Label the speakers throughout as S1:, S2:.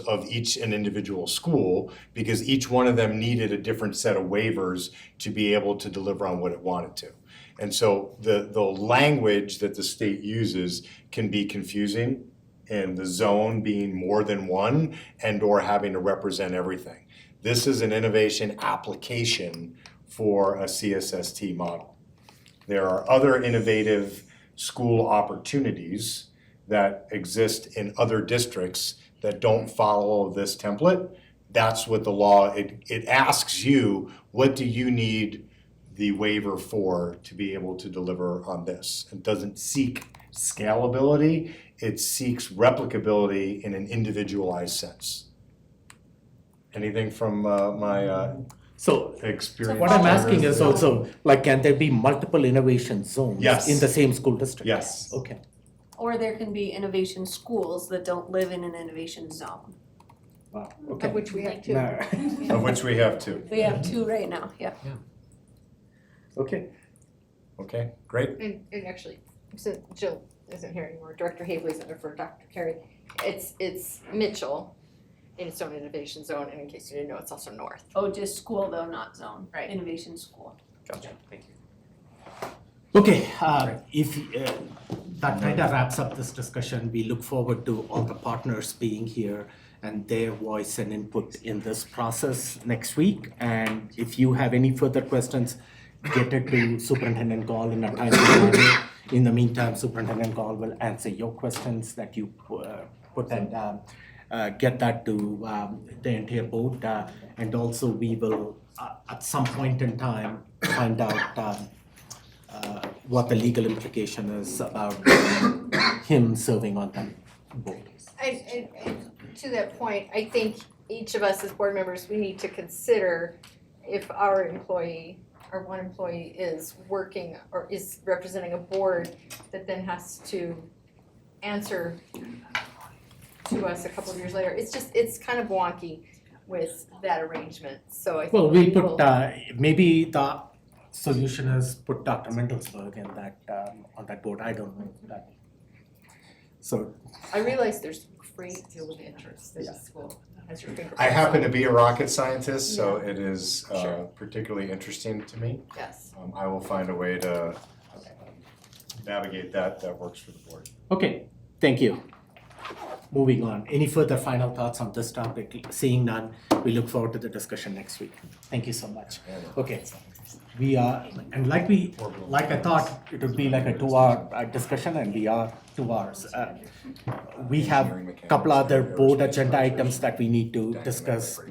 S1: of each an individual school because each one of them needed a different set of waivers to be able to deliver on what it wanted to. And so the, the language that the state uses can be confusing and the zone being more than one and or having to represent everything. This is an innovation application for a CSST model. There are other innovative school opportunities that exist in other districts that don't follow this template. That's what the law, it, it asks you, what do you need the waiver for to be able to deliver on this? It doesn't seek scalability, it seeks replicability in an individualized sense. Anything from uh, my uh,
S2: So
S1: experience?
S2: what I'm asking is also, like, can there be multiple innovation zones
S1: Yes.
S2: in the same school district?
S1: Yes.
S2: Okay,
S3: Or there can be innovation schools that don't live in an innovation zone.
S2: wow,
S4: Of
S2: okay.
S4: which we have two.
S2: Nah.
S1: Of which we have two,
S3: We have two right now, yeah.
S2: Okay,
S1: okay, great.
S4: And, and actually, since Jill isn't here anymore, Director Haley's under for Dr. Carey. It's, it's Mitchell in its own innovation zone, and in case you didn't know, it's also north.
S3: Oh, just school though, not zone.
S4: Right.
S3: Innovation school.
S4: Gotcha, thank you.
S2: okay, uh, if, uh, that kind of wraps up this discussion. We look forward to all the partners being here and their voice and input in this process next week. And if you have any further questions, get it to Superintendent Gall in a timely manner. In the meantime, Superintendent Gall will answer your questions that you uh, put and um, uh, get that to um, the entire board. uh, And also, we will, uh, at some point in time, find out um, uh, what the legal implication is about him serving on that board.
S4: And, and, and to that point, I think each of us as board members, we need to consider if our employee, our one employee is working or is representing a board that then has to answer to us a couple of years later. It's just, it's kind of wonky with that arrangement, so I think
S2: Well, we
S4: will-
S2: put, uh, maybe the solution is put Dr. Mendelsberg in that, um, on that board, I don't know that. So,
S4: I realize there's a great deal of interest that
S2: Yeah.
S4: this school has your fingerprints.
S1: I happen to be a rocket scientist, so it is uh,
S4: Sure.
S1: particularly interesting to me.
S4: Yes,
S1: Um, I will find a way to um, navigate that, that works for the board.
S2: okay, thank you. Moving on, any further final thoughts on this topic? Seeing none, we look forward to the discussion next week. Thank you so much. Okay, we are, and like we, like I thought, it would be like a two-hour uh, discussion, and we are two hours. Uh, We have a couple other board agenda items that we need to discuss. Uh,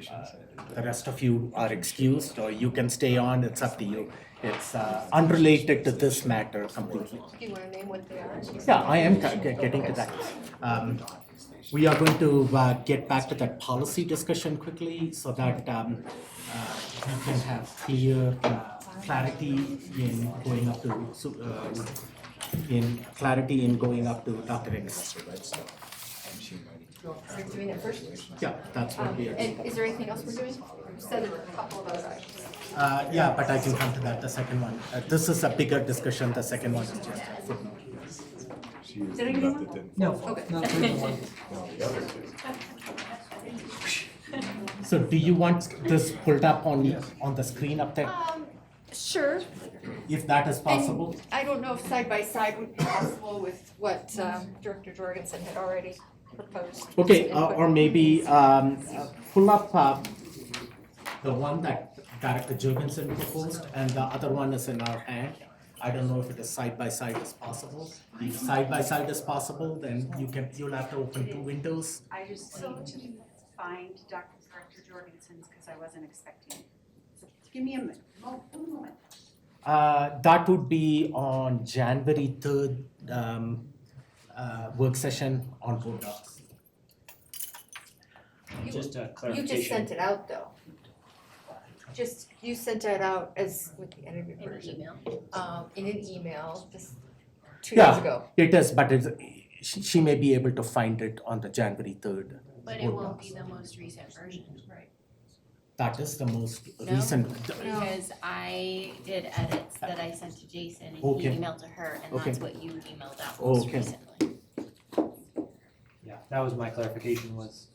S2: The rest of you are excused, or you can stay on, it's up to you. It's uh, unrelated to this matter completely.
S4: do you wanna name what they are?
S2: Yeah, I am ca- ca- getting to that. Um, We are going to uh, get back to that policy discussion quickly so that um, uh, we can have clear uh, clarity in going up to, su- uh, in clarity in going up to Dr. Ennis.
S4: So we're doing it first.
S2: Yeah, that's what
S4: Um,
S2: we are.
S4: and is there anything else we're doing? You said there were a couple of other items.
S2: Uh, Yeah, but I can come to that, the second one. Uh, This is a bigger discussion, the second one is just a footnote.
S1: She is
S4: Did
S1: the
S4: I get
S1: nut
S4: one?
S1: that didn't
S5: No,
S4: Okay.
S5: not really one.
S1: fall on the other two.
S2: So do you want this pulled up on, on the screen up there,
S4: Um, sure.
S2: if that is possible?
S4: And I don't know if side by side would be possible with what um, Director Jorgensen had already proposed.
S2: Okay, uh, or maybe um, uh, pull up uh, the one that Director Jorgensen proposed, and the other one is in our hand. I don't know if it is side by side is possible. If side by side is possible, then you can, you'll have to open two windows.
S6: I just need to find Dr. Director Jorgensen's because I wasn't expecting it. So Give me a minute, mo- moment.
S2: Uh, That would be on January third um, uh, work session on board docs.
S4: You
S7: Just a
S4: you just
S7: clarification,
S4: sent it out, though. Just, you sent it out as with the edited version. um, In an email, just two years
S2: Yeah.
S4: ago.
S2: It is, but it's, she she may be able to find it on the January third.
S8: But it won't be the most recent version. Right.
S2: That is the most
S8: No?
S2: recent.
S8: Because I did edits that I sent to Jason and he
S2: Okay.
S8: emailed to her and
S2: Okay.
S8: that's what you emailed out most
S2: Okay.
S8: recently.
S7: yeah, that was my clarification was